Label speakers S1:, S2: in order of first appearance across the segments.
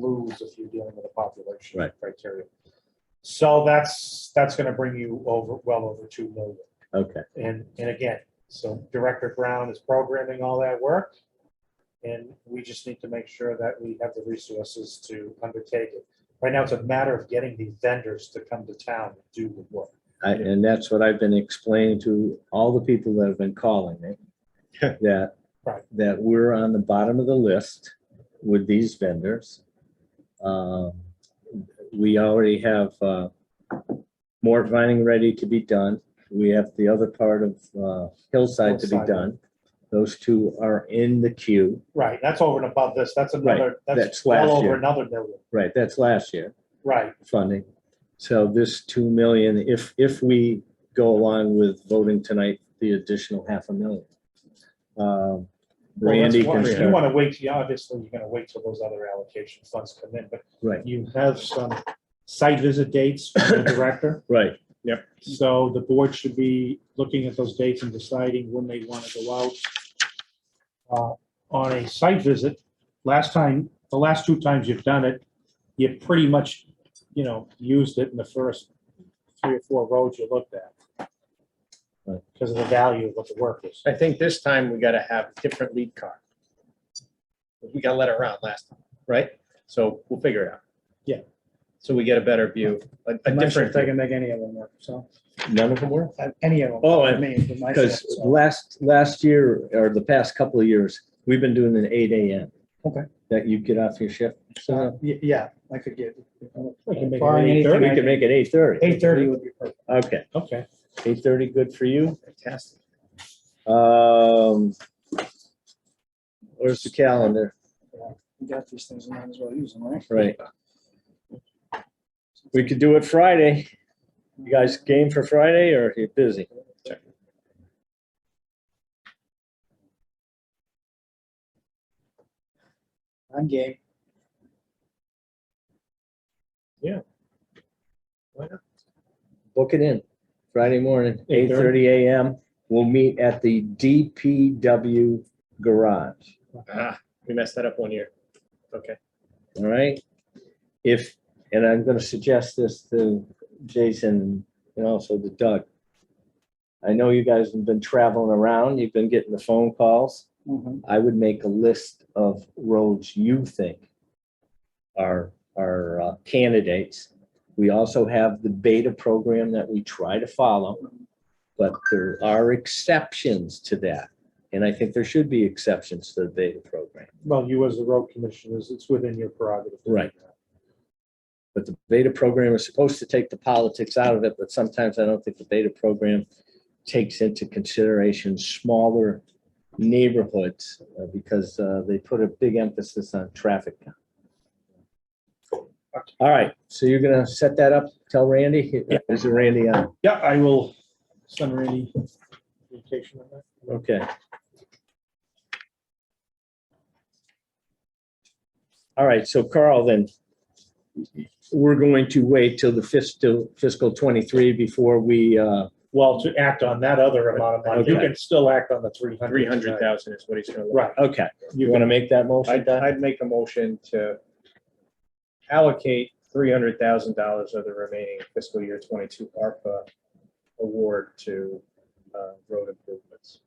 S1: lose if you're dealing with a population
S2: Right.
S1: criteria. So that's, that's gonna bring you over, well over two million.
S2: Okay,
S1: And, and again, so Director Brown is programming all that work. And we just need to make sure that we have the resources to undertake it. Right now, it's a matter of getting the vendors to come to town and do the work.
S2: I, and that's what I've been explaining to all the people that have been calling me. That,
S1: Right.
S2: that we're on the bottom of the list with these vendors. Um, We already have, uh, more vining ready to be done. We have the other part of, uh, Hillside to be
S1: Hillside.
S2: done. Those two are in the queue.
S1: Right, that's over and above this, that's
S2: Right,
S1: another, that's
S2: that's last
S1: well over
S2: year.
S1: another million,
S2: Right, that's last year.
S1: right,
S2: funding. So this two million, if, if we go along with voting tonight, the additional half a million. Um,
S1: Well, that's
S2: Randy
S1: why-
S2: can
S1: You
S2: start,
S1: want to wait, yeah, obviously, you're going to wait till those other allocation funds come in, but
S2: right,
S1: you have some site visit dates from the director.
S2: right,
S1: So the board should be looking at those dates and deciding when they want to go out. Uh, On a site visit, last time, the last two times you've done it, you pretty much, you know, used it in the first three or four roads you looked at.
S2: Right.
S1: Because of the value of what the work is.
S3: I think this time we gotta have a different lead car. We got let it around last time, right? So we'll figure it out.
S1: Yeah.
S3: So we get a better view, a, a
S4: I'm not sure
S3: different.
S4: if they can make any of them work, so,
S2: none of them were?
S4: uh, any of them.
S2: Oh, I-
S4: I mean, for myself,
S2: Because
S4: so.
S2: last, last year, or the past couple of years, we've been doing an eight AM.
S4: Okay.
S2: That you get off your shift.
S4: Uh,
S2: So
S4: y- Yeah, I could get.
S1: Uh-huh. We can make it
S4: Barring
S2: we
S4: anything,
S1: Thirty?
S2: can make it eight thirty.
S4: Eight thirty would be perfect.
S2: Okay,
S1: Okay.
S2: eight thirty, good for you.
S3: Fantastic.
S2: Um, where's the calendar?
S4: We got these things, we might as well use them, right?
S2: Right. We could do it Friday. You guys game for Friday or you busy?
S4: I'm game.
S2: Book it in. Friday morning, eight
S1: 8:30.
S2: thirty AM. We'll meet at the DPW garage.
S3: Ah, We messed that up one year. Okay.
S2: All right? If, and I'm gonna suggest this to Jason and also to Doug. I know you guys have been traveling around. You've been getting the phone calls.
S4: Mhm.
S2: I would make a list of roads you think are, are uh, candidates. We also have the beta program that we try to follow, but there are exceptions to that. And I think there should be exceptions to the beta program.
S1: Well, you as the road commissioners, it's within your prerogative. to do
S2: Right.
S1: that.
S2: But the beta program is supposed to take the politics out of it, but sometimes I don't think the beta program takes into consideration smaller neighborhoods uh, because uh, they put a big emphasis on traffic. count. All right, so you're gonna set that up, tell Randy, is it Randy on?
S1: Yeah, I will send Randy communication on that.
S2: Okay. All right, so Carl, then, we're going to wait till the fiscal, fiscal 23 before we, uh,
S1: Well, to act on that other amount of money, you
S2: Okay.
S1: can still act on the three hundred.
S3: Three hundred thousand is what he's gonna. look
S1: Right.
S2: okay, you want to make that motion,
S3: I'd,
S2: Don?
S3: I'd make a motion to allocate three hundred thousand dollars of the remaining fiscal year twenty-two ARPA award to, uh, road improvements.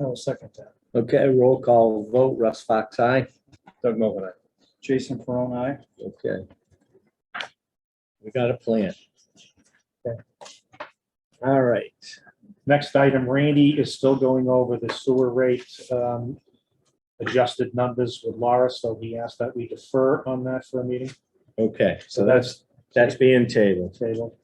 S4: I will second that.
S2: Okay, roll call vote, Russ Fox, aye?
S3: Doug Mogul, aye.
S4: Jason Perone, aye.
S2: Okay. We got a plan. All right,
S1: Next item, Randy is still going over the sewer rate um, adjusted numbers with Laura, so he asked that we defer on that for a meeting.
S2: okay, so that's, that's being tabled,
S1: Table.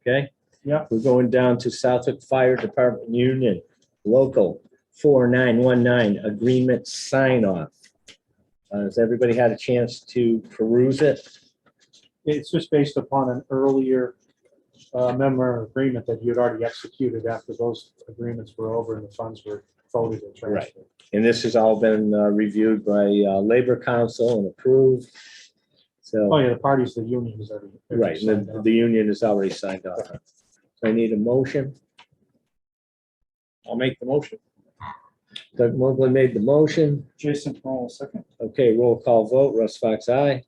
S2: okay?
S1: Yeah.
S2: We're going down to Southwick Fire Department Union, local four nine one nine, agreement sign off. Has everybody had a chance to peruse it?
S1: It's just based upon an earlier uh, memorandum of agreement that you'd already executed after those agreements were over and the funds were folded and transferred.
S2: And this has all been uh, reviewed by uh, Labor Council and approved. So.
S1: Oh, yeah, the parties, the union is already.
S2: Right, and the, the union is already signed off. on it. So I need a motion.
S3: I'll make the motion.
S2: Doug Mogul made the motion.
S4: Jason Perone will second.
S2: Okay, roll call vote. Russ Fox, aye.